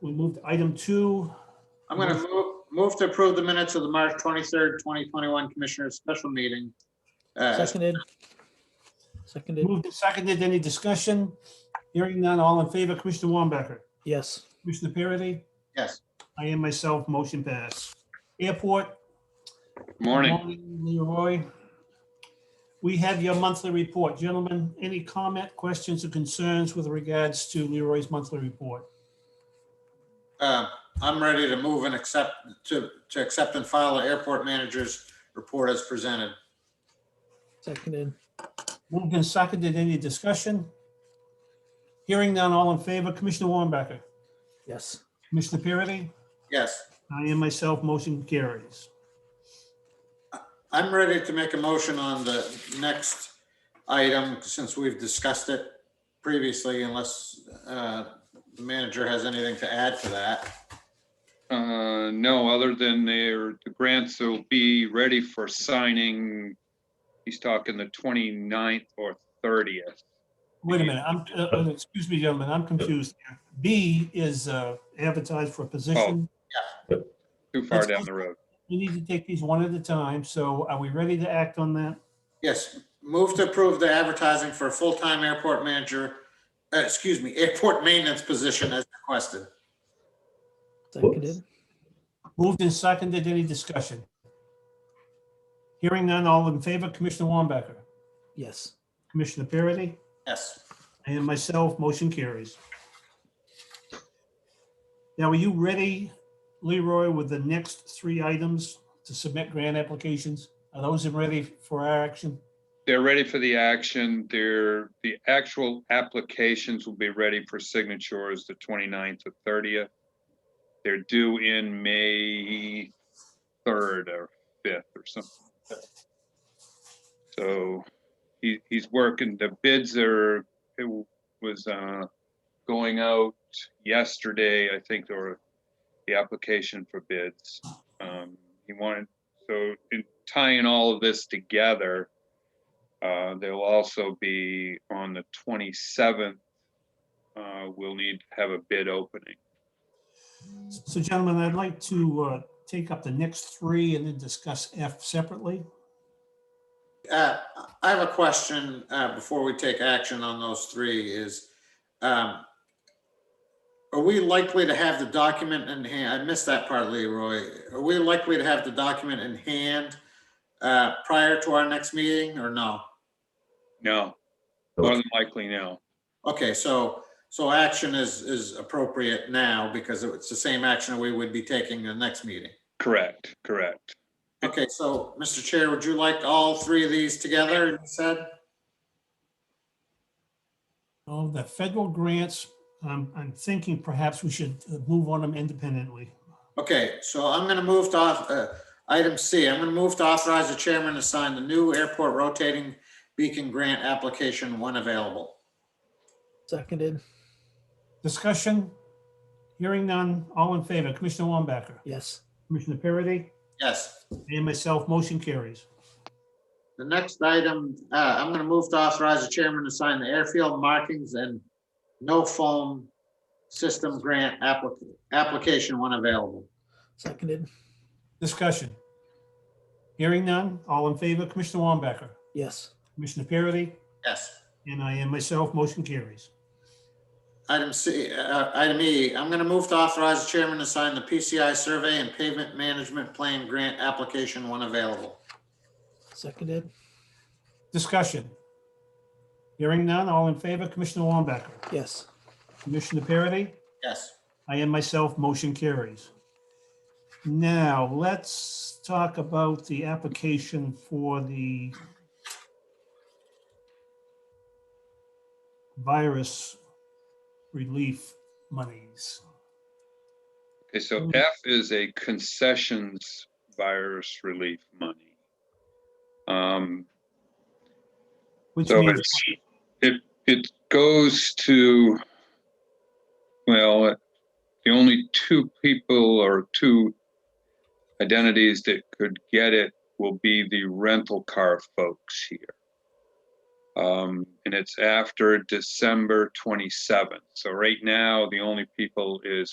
we moved item two. I'm going to move, move to approve the minutes of the March 23rd, 2021 Commissioners Special Meeting. Uh, Seconded. Seconded, Moved and seconded. Any discussion? Hearing none, all in favor, Commissioner Wambacher, yes. Commissioner Parity, Yes. I am myself, motion passed. Airport, Morning. Leroy. We have your monthly report. Gentlemen, any comment, questions, or concerns with regards to Leroy's monthly report? Uh, I'm ready to move and accept, to, to accept and file the airport manager's report as presented. Seconded, Moved and seconded. Any discussion? Hearing none, all in favor, Commissioner Wambacher, yes. Commissioner Parity, Yes. I am myself, motion carries. I'm ready to make a motion on the next item, since we've discussed it previously, unless uh, the manager has anything to add to that. Uh, no, other than their, the grants will be ready for signing. He's talking the 29th or thirtieth. Wait a minute, I'm, uh, uh, excuse me, gentlemen, I'm confused. here. B is uh, advertised for a position. Too far down the road. We need to take these one at a time, so are we ready to act on that? Yes, move to approve the advertising for a full-time airport manager, uh, excuse me, airport maintenance position as requested. Seconded, Moved and seconded, any discussion? Hearing none, all in favor, Commissioner Wambacher, yes. Commissioner Parity, Yes, and myself, motion carries. Now, are you ready, Leroy, with the next three items to submit grant applications? Are those ready for our action? They're ready for the action. Their, the actual applications will be ready for signatures the 29th or thirtieth. They're due in May third or fifth or something. like that. So he, he's working, the bids are, it was, uh, going out yesterday, I think, or the application for bids. Um, he wanted, so in tying all of this together, uh, They'll also be on the 27th. uh, We'll need to have a bid opening. So gentlemen, I'd like to uh, take up the next three and then discuss F separately. uh, I have a question, uh, before we take action on those three is, um, are we likely to have the document in hand? I missed that part, Leroy. Are we likely to have the document in hand, uh, prior to our next meeting or no? No, more than likely no. Okay, so, so action is, is appropriate now because it's the same action we would be taking the next meeting. Correct, correct. Okay, so, Mr. Chair, would you like all three of these together, you said? Oh, the federal grants, um, I'm thinking perhaps we should uh, move on them independently. Okay, so I'm gonna move to, auth- uh, item C, I'm gonna move to authorize the chairman to sign the new airport rotating beacon grant application when available. Seconded, Discussion, hearing none, all in favor, Commissioner Wambacher, yes. Commissioner Parity, Yes. and myself, motion carries. The next item, uh, I'm gonna move to authorize the chairman to sign the airfield markings and no foam system grant applica- application when available. Seconded, Discussion, hearing none, all in favor, Commissioner Wambacher, yes. Commissioner Parity, Yes. and I am myself, motion carries. Item C, uh, item E, I'm gonna move to authorize the chairman to sign the PCI survey and pavement management plan grant application when available. Seconded, Discussion, hearing none, all in favor, Commissioner Wambacher, yes. Commissioner Parity, Yes. I am myself, motion carries. Now, let's talk about the application for the virus relief monies. Okay, so F is a concessions virus relief money. Um, Which So means, it's, it, it goes to, well, uh, the only two people or two identities that could get it will be the rental car folks here. Um, and it's after December twenty-seventh. So right now, the only people is